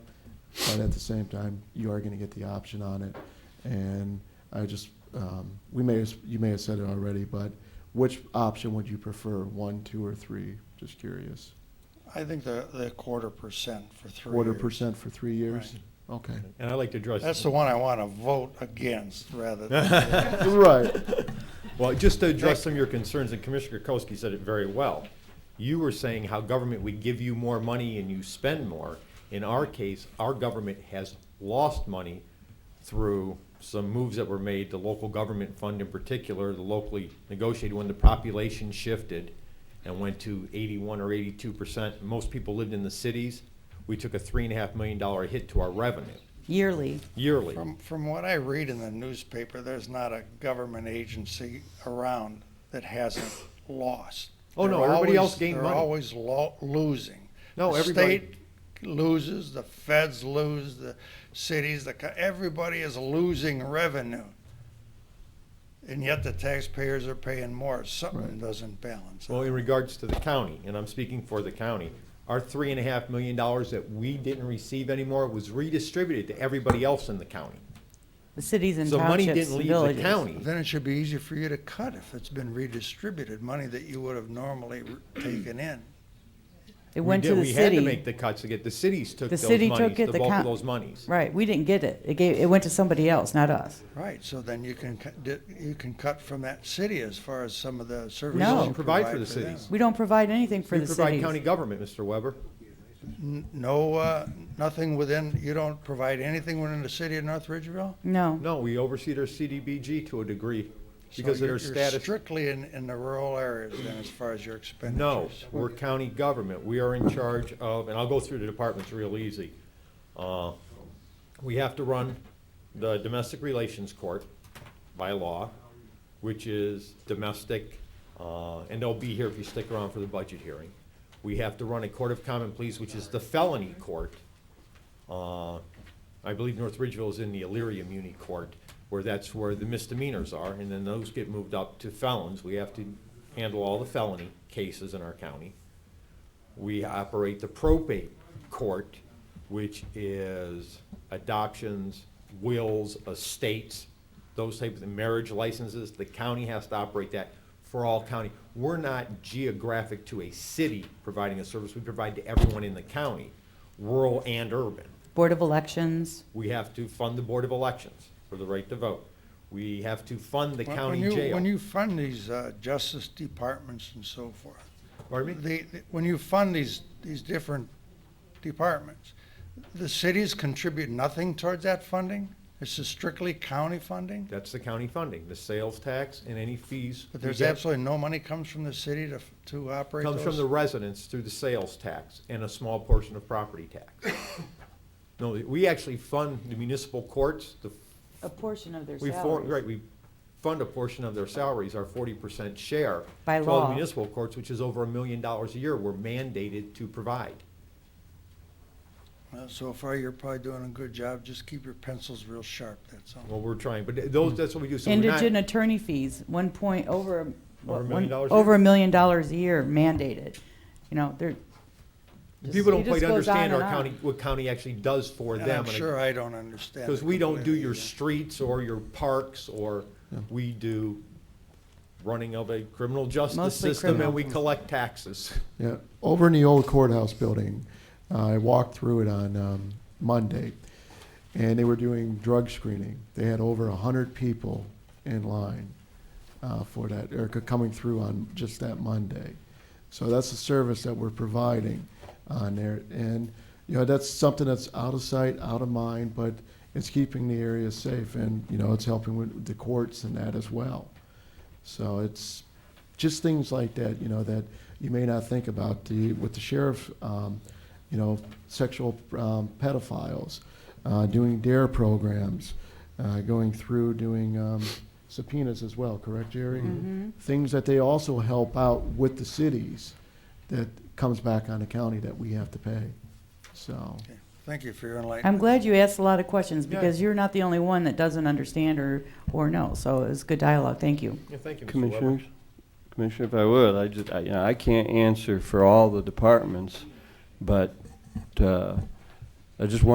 but at the same time, you are going to get the option on it. And I just, um, we may, as- you may have said it already, but which option would you prefer, one, two, or three? Just curious. I think the, the quarter percent for three Quarter years. percent for three years? Okay. And I like to address. That's the one I want to vote against rather than. Right. Well, just to address some of your concerns, and Commissioner Kokoski said it very well. You were saying how government would give you more money and you spend more. In our case, our government has lost money through some moves that were made, the local government fund in particular, the locally negotiated when the population shifted and went to eighty-one or eighty-two percent. Most people lived in the cities. We took a three and a half million dollar hit to our revenue yearly. yearly. From, from what I read in the newspaper, there's not a government agency around that hasn't lost. Oh, no, They're everybody always- else gained they're money. always lo- losing. No, The everybody- State loses, the feds lose, the cities, the, co- everybody is losing revenue. And yet the taxpayers are paying more. Something Right. doesn't balance. Well, out. in regards to the county, and I'm speaking for the county, our three and a half million dollars that we didn't receive anymore was redistributed to everybody else in the county. The cities and So money townships didn't and leave the villages. county. Then it should be easier for you to cut if it's been redistributed, money that you would have normally taken in. It We went to did- the We had to city. make the cuts to get, the cities took The those city monies, took it, the the bulk of coun- those monies. Right, we didn't get it. It gave, it went to somebody else, not us. Right, so then you can, cut- di- you can cut from that city as far as some of the services. No. you Provide for the them. cities. We don't provide anything for We the provide cities. county government, Mr. Weber. N- No, uh, nothing within, you don't provide anything within the city of North Ridgeville? No, No, we oversee their CDBG to a degree So because of you're- their you're status. Strictly in, in the rural areas then as far as your expenditures. No, we're county government. We are in charge of, and I'll go through the departments real easy. Uh, We have to run the Domestic Relations Court by law, which is domestic, uh, and they'll be here if you stick around for the budget hearing. We have to run a Court of Common Pleas, which is the felony court. Uh, I believe North Ridgeville is in the Illyria Muni Court, where that's where the misdemeanors are, and then those get moved up to felons. We have to handle all the felony cases in our county. We operate the probate court, which is adoptions, wills, estates, those types of marriage licenses. The county has to operate that for all county. We're not geographic to a city providing a service. We provide to everyone in the county, rural and urban. Board of Elections, We have to fund the Board of Elections for the right to vote. We have to fund the When- when county you- jail. When you fund these, uh, justice departments and so forth, Pardon me? the, the- when you fund these, these different departments, the cities contribute nothing towards that funding? This is strictly county funding? That's the county funding, the sales tax and any fees. But we there's get. absolutely no money comes from the city to, to operate Comes from the those? residents through the sales tax and a small portion of property tax. No, we actually fund the municipal courts, the, a portion of their we, for- right, salaries. we fund a portion of their salaries, our forty percent share. By to all the law. Municipal courts, which is over a million dollars a year, we're mandated to provide. Uh, So far, you're probably doing a good job, just keep your pencils real sharp, that's all. Well, we're trying, but those, that's what we do. So we're not- Indigent attorney fees, one point, over, a- Over a what, million one- dollars a over year? a million dollars a year mandated. You know, they're, the People don't It just quite goes understand on our and on. county, what county actually does for And them. I'm sure I don't understand. Because it we don't do completely your either. streets or your parks, or we do running of a criminal justice Mostly system, and criminal. we collect taxes. Yeah, over in the old courthouse building, uh, I walked through it on um, Monday, and they were doing drug screening. They had over a hundred people in line uh, for that, or c- coming through on just that Monday. So that's the service that we're providing on there, and you know that's something that's out of sight, out of mind, but it's keeping the area safe, and you know it's helping with the courts and that as well. So it's just things like that, you know, that you may not think about. The with the sheriff, um, you know, sexual um, pedophiles, uh, doing dare programs, uh, going through doing um, subpoenas as well. Correct, Jerry? Things that they also help out with the cities, that comes back on the county that we have to pay. So Okay. Thank you for your enlightenment. I'm glad you asked a lot of questions Yeah. because you're not the only one that doesn't understand or, or know. So it was good dialogue. Thank you. Yeah, thank you, Mr. Weber. Commissioners, Commissioner, if I would, I just, I, you know, I can't answer for all the departments, but, uh, I just want